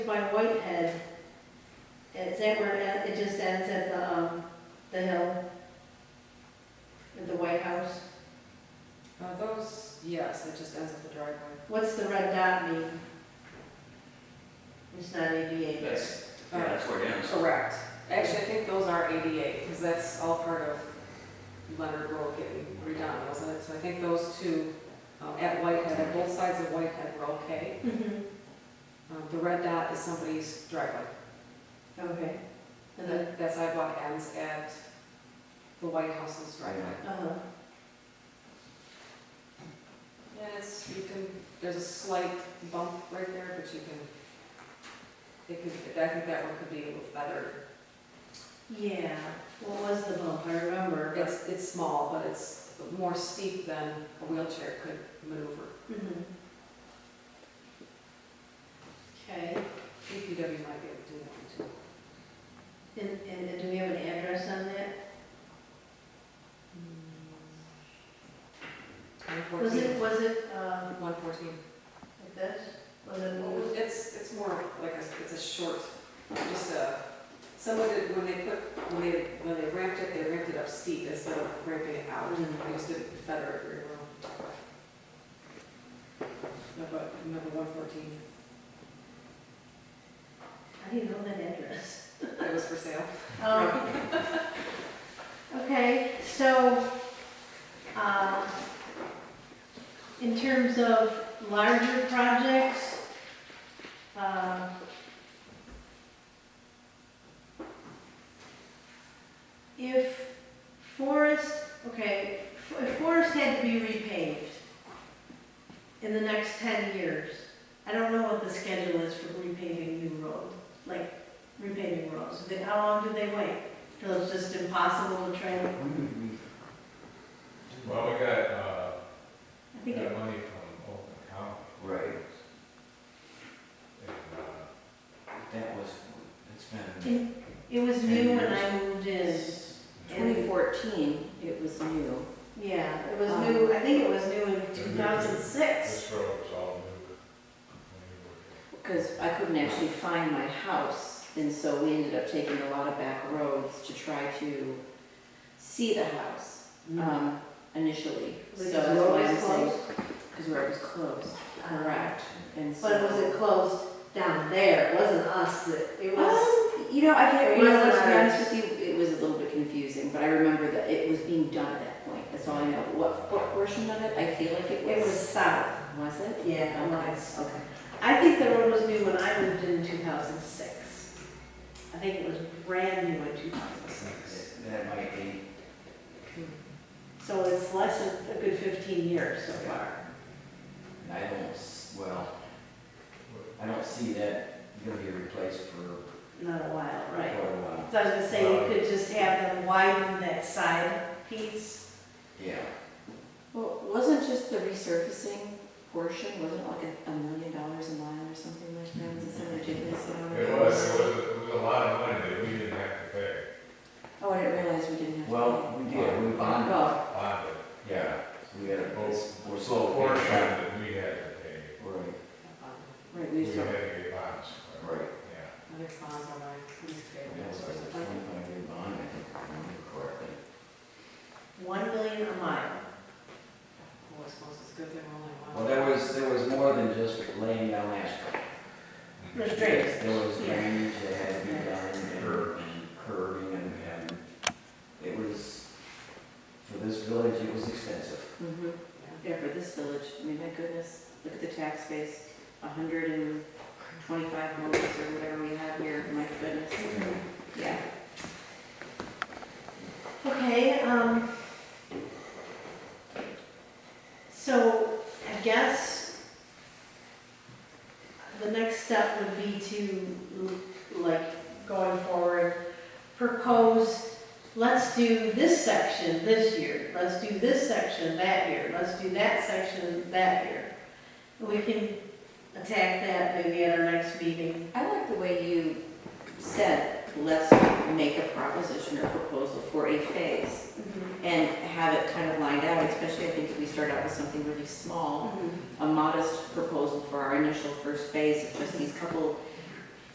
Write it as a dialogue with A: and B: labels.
A: by Whitehead, and is that where it at? it just ends at the, um, the hill? At the White House?
B: Uh, those, yes, it just ends at the driveway.
A: What's the red dot mean? It's not ADA.
C: That's, yeah, that's where it ends.
B: Correct. Actually, I think those are ADA, because that's all part of Leonard Road getting redone, wasn't it? So I think those two, um, at Whitehead, at both sides of Whitehead were okay.
A: Mhm.
B: Um, The red dot is somebody's driveway.
A: Okay. And then,
B: That that sidewalk ends at the White House's driveway.
A: uh-huh,
B: And it's, you can, there's a slight bump right there, but you can, it could, I think that one could be a little better.
A: yeah, what was the bump, I remember.
B: It's, it's small, but it's more steep than a wheelchair could maneuver.
A: Mhm. Okay,
B: DPW might be able to do that one
A: and, and and do we have an address on that?
B: too.
A: Was it, was it, um,
B: One fourteen.
A: like this? Was it, what was
B: It's, it's more like a, it's a short, just a, someone did, when they put, when they, when they ramped it, they ramped it up steep instead of ramping it out.
A: Mm.
B: They just didn't feather it very well. Number, number one fourteen,
A: I didn't know that address.
B: it was for sale.
A: Um, Okay, so, uh, in terms of larger projects, um, if Forest, okay, if Forest had to be repaved in the next 10 years, I don't know what the schedule is for repaving new road, like repaving roads. They- How long do they wait? Till it's just impossible to train?
D: Well, we got,
A: I
D: uh, we
A: think, it-
D: got money from Oakland County,
C: Right,
D: and, uh,
C: that was, it's been.
A: it it was new when I moved in.
E: 2014, it was new.
A: Yeah, it was
E: Um,
A: new, I think it was new in 2006.
D: this road was all new. when we were here.
E: Because I couldn't actually find my house, and so we ended up taking a lot of back roads to try to see the house
A: Mm-hmm.
E: um, initially. So
A: Was
E: that's
A: it
E: why I'm
A: always
E: saying,
A: closed? Ah.
E: because where it was closed, correct. And so.
A: But was it closed down there? It wasn't us, that- it was,
E: Um, You know, I can't,
A: It
E: you know,
A: was
E: to be
A: ours.
E: honest with you, it was a little bit confusing, but I remember that it was being done at that point. That's all I know. What, what portion of it? I feel like it was.
A: it was south.
E: Was it?
A: Yeah, it
E: Okay,
A: was.
E: okay.
A: I think the road was new when I moved in 2006. I think it was brand new in 2006.
C: That might be,
A: So it's less than a good 15 years so far.
C: I don't, s- well, I don't see that gonna be replaced for
A: Not a while,
C: quite
A: right?
C: a while.
A: So I was gonna say, you could just have them widen that side piece.
C: Yeah,
E: Well, wasn't just the resurfacing portion, wasn't it like a, a million dollars a mile or something like that? Was it some ridiculous amount?
D: It was, it was, it was a lot of money that we didn't have to pay,
E: Oh, I didn't realize we didn't have. to
C: well, we did, we
E: pay.
C: bonded,
E: Oh,
D: bonded,
C: yeah, we had a,
D: Both.
C: we're
D: the
C: slow.
D: portion that we had to pay,
C: Right,
E: right,
D: we
E: we
D: had
E: sort of,
D: to get bonds. for it.
C: right,
D: Yeah.
B: Other bonds on my, who's
C: and that was like a twenty-five year bond, I think, if I remember correctly.
A: 1 million a mile.
B: Oh, I suppose it's good they're only one.
C: Well, there was, there was more than just laying down asphalt.
A: There's
C: Yes,
A: drainage.
C: There was
A: Yeah.
C: drainage that had to be done
D: Curb.
C: and- and curbing and, and it was, for this village, it was expensive.
E: mm-hmm, yeah, for this village, I mean, my goodness, look at the tax base, a hundred and twenty-five homes or whatever we have here, my goodness, yeah.
A: Okay, um, so I guess the next step would be to, like, going forward, propose, let's do this section this year, let's do this section that year, let's do that section that year. We can attack that maybe at our next meeting.
E: I like the way you said, let's make a proposition or proposal for a phase. and have it kind of lined out, especially I think if we start out with something really small,
A: Mhm.
E: a modest proposal for our initial first phase of just these couple